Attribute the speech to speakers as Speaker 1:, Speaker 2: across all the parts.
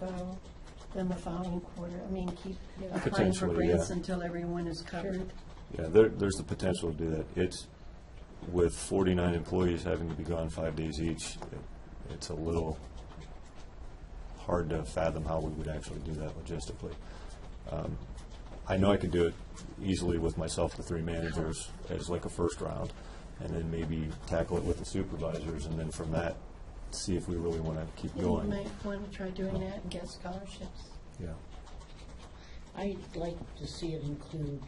Speaker 1: go, then the following quarter, I mean, keep applying for
Speaker 2: Potentially, yeah.
Speaker 1: grants until everyone is covered.
Speaker 2: Yeah, there, there's the potential to do that. It's, with forty-nine employees having to be gone five days each, it- it's a little hard to fathom how we would actually do that logistically. Um, I know I could do it easily with myself, the three managers, as like a first round, and then maybe tackle it with the supervisors, and then from that, see if we really want to keep
Speaker 1: You
Speaker 2: going.
Speaker 1: might want to try doing that and get scholarships.
Speaker 2: Yeah,
Speaker 3: I'd like to see it include,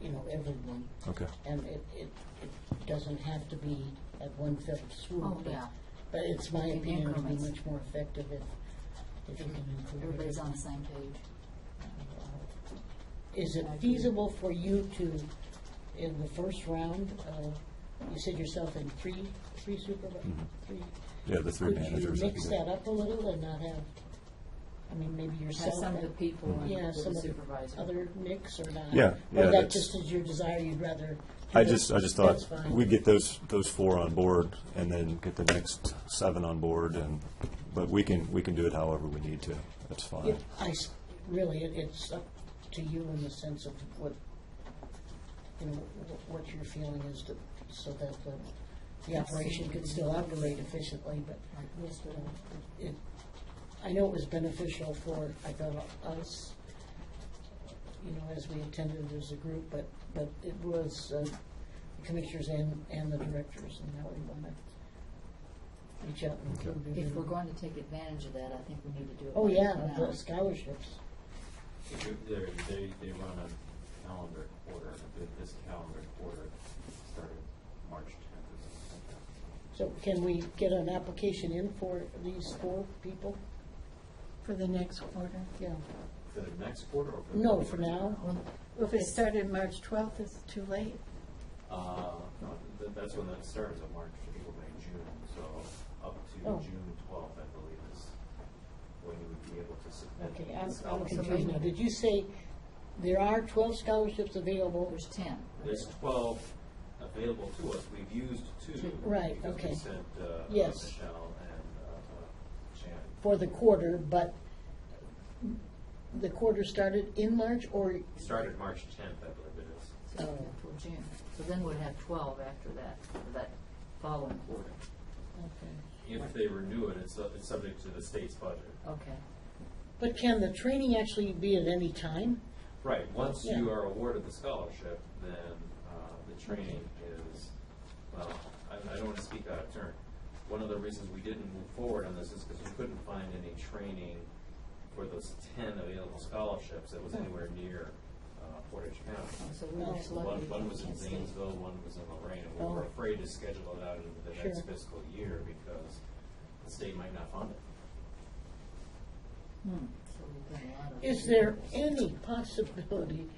Speaker 3: you know, everyone,
Speaker 2: okay.
Speaker 3: and it, it, it doesn't have to be at one fell swoop.
Speaker 4: Oh,
Speaker 3: but-
Speaker 4: yeah.
Speaker 3: But it's my
Speaker 4: In
Speaker 3: opinion, it'd be
Speaker 4: increments.
Speaker 3: much more effective if, if you can include.
Speaker 4: Everybody's on
Speaker 3: everyone.
Speaker 4: the same page.
Speaker 3: Is it feasible for you to, in the first round, uh, you said yourself in three, three supervisors, three?
Speaker 2: Yeah, the Mhm. three
Speaker 3: Could
Speaker 2: managers.
Speaker 3: you
Speaker 2: I could
Speaker 3: mix
Speaker 2: do.
Speaker 3: that up a little and not have, I mean, maybe
Speaker 4: Have
Speaker 3: yourself?
Speaker 4: some of the
Speaker 3: and-
Speaker 4: people and
Speaker 3: Yeah,
Speaker 4: with
Speaker 3: some
Speaker 4: the
Speaker 3: of the
Speaker 4: supervisor.
Speaker 3: other mix or not?
Speaker 2: Yeah, yeah,
Speaker 3: Or that
Speaker 2: that's-
Speaker 3: just is your desire, you'd rather? do
Speaker 2: I
Speaker 3: this?
Speaker 2: just, I just thought
Speaker 3: That's fine.
Speaker 2: we'd get those, those four on board and then get the next seven on board and, but we can, we can do it however we need to. That's fine.
Speaker 3: It- I, s- really, it- it's up to you in the sense of what, you know, wh- what your feeling is to, so that the, the operation can still operate efficiently, but uh, it, I know it was beneficial for, I thought, us, you know, as we attended as a group, but, but it was uh, the commissioners and, and the directors, and now we want to reach out and include.
Speaker 4: If we're
Speaker 3: everyone.
Speaker 4: going to take advantage of that, I think we need to do it.
Speaker 3: Oh,
Speaker 4: right
Speaker 3: yeah,
Speaker 4: now.
Speaker 3: the scholarships.
Speaker 5: They're, they, they run a calendar quarter, th- this calendar quarter started March tenth or something like that.
Speaker 3: So can we get an application in for these four people?
Speaker 1: For the next quarter.
Speaker 3: Yeah.
Speaker 5: For the next quarter or for the?
Speaker 3: No,
Speaker 5: next
Speaker 3: for
Speaker 5: quarter?
Speaker 3: now.
Speaker 1: Well, If it started March 12th, it's too late.
Speaker 5: Uh, no, th- that's when that starts, at March, April, May, June, so up to
Speaker 3: Oh.
Speaker 5: June twelfth, I believe, is when you would be able to submit.
Speaker 3: Okay, I'm, I'm
Speaker 5: the scholarship.
Speaker 3: confused now. Did you say there are twelve scholarships available?
Speaker 4: There's ten.
Speaker 5: There's twelve available to us, we've used two.
Speaker 4: Two.
Speaker 3: Right,
Speaker 5: Because we
Speaker 3: okay.
Speaker 5: sent, uh, uh,
Speaker 3: Yes.
Speaker 5: Michelle and, uh, uh, Shannon.
Speaker 3: for the quarter, but the quarter started in March or,
Speaker 5: Started March tenth, I believe it is.
Speaker 4: So
Speaker 3: Oh.
Speaker 4: Until June. So then we'd have twelve after that, for that following quarter.
Speaker 5: If they renew it, it's, it's subject to the state's budget.
Speaker 4: Okay.
Speaker 3: but can the training actually be at any time?
Speaker 5: Right, once
Speaker 3: Yeah.
Speaker 5: you are awarded the scholarship, then uh, the training is, well, I I don't want to speak out of turn. One of the reasons we didn't move forward on this is because we couldn't find any training for those ten available scholarships that was anywhere near uh, Portage County.
Speaker 4: Oh, So we were just lucky.
Speaker 5: One, one
Speaker 4: we
Speaker 5: was in
Speaker 4: can't see.
Speaker 5: Zanesville, one was in Lorraine, and we
Speaker 3: Oh.
Speaker 5: were afraid to schedule it out into the next
Speaker 3: Sure.
Speaker 5: fiscal year because the state might not fund it.
Speaker 4: Hmm. So we've got a lot of-
Speaker 3: Is there any possibility,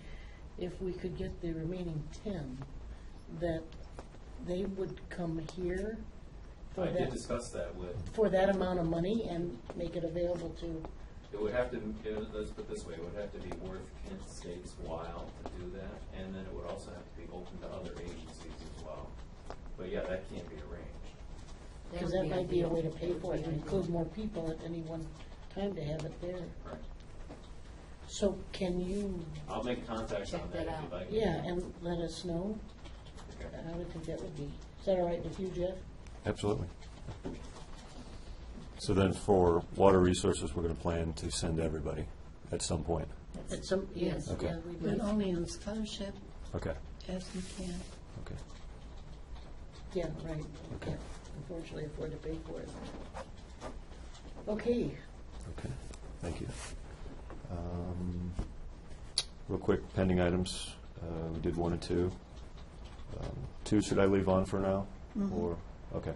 Speaker 3: if we could get the remaining ten, that they would come here for
Speaker 5: I did
Speaker 3: that,
Speaker 5: discuss that with
Speaker 3: for that amount of money and make it available to,
Speaker 5: It would have to, you know, let's put it this way, it would have to be worth Kent State's while to do that, and then it would also have to be open to other agencies as well. But yeah, that can't be arranged.
Speaker 4: That
Speaker 3: because
Speaker 4: would
Speaker 3: that might be a
Speaker 4: ideal.
Speaker 3: way to pay for it, and
Speaker 4: That would be
Speaker 3: include
Speaker 4: ideal.
Speaker 3: more people at any one time to have it there.
Speaker 5: Right.
Speaker 3: So can you,
Speaker 5: I'll make contact on
Speaker 4: Check that
Speaker 5: that if
Speaker 4: out.
Speaker 5: you'd like.
Speaker 3: yeah, and let us know?
Speaker 5: Okay.
Speaker 3: I would think that would be, is that all right with you, Jeff?
Speaker 2: Absolutely. So then for water resources, we're going to plan to send everybody at some point.
Speaker 3: At some, yes,
Speaker 2: Okay.
Speaker 3: yeah, we'd
Speaker 1: But
Speaker 3: like-
Speaker 1: only on scholarship
Speaker 2: Okay,
Speaker 1: as we can.
Speaker 2: okay.
Speaker 3: Yeah, right. We
Speaker 2: Okay.
Speaker 3: can't, Unfortunately, afford to pay for it. Okay,
Speaker 2: Okay, thank you. Um, Real quick, pending items, uh, we did one and two. Um, Two, should I leave on for now?
Speaker 1: Mm-hmm.
Speaker 3: Mm-hmm.
Speaker 2: Or, okay.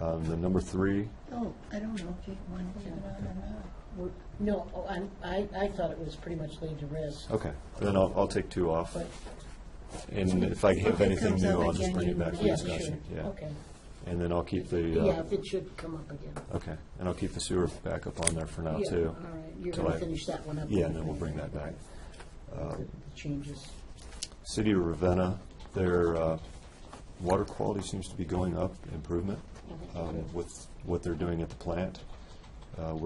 Speaker 2: Um, Then number three,
Speaker 1: Oh, I don't know if you want to leave it on or not.
Speaker 3: we're, no, oh, I'm, I, I thought it was pretty much laid to rest,
Speaker 2: okay, then I'll, I'll take two off.
Speaker 3: but,
Speaker 2: And if I have
Speaker 1: If it
Speaker 2: anything
Speaker 1: comes
Speaker 2: new,
Speaker 1: up
Speaker 2: I'll just
Speaker 1: again,
Speaker 2: bring
Speaker 1: you-
Speaker 2: it back for
Speaker 3: yeah,
Speaker 2: discussion.
Speaker 3: sure,
Speaker 2: Yeah.
Speaker 3: okay.
Speaker 2: And then I'll keep the,
Speaker 3: Yeah,
Speaker 2: uh,
Speaker 3: if it should come up again.
Speaker 2: okay, and I'll keep the sewer backup on there for now,
Speaker 3: Yeah,
Speaker 2: too.
Speaker 3: All right, you're
Speaker 2: till
Speaker 3: gonna
Speaker 2: I-
Speaker 3: finish that one up.
Speaker 2: Yeah, and then we'll bring that back.
Speaker 3: The Changes.
Speaker 2: City of Ravenna, their uh, water
Speaker 3: Mm-hmm.
Speaker 2: quality seems to be going up, improvement um, with what they're doing at the plant. uh,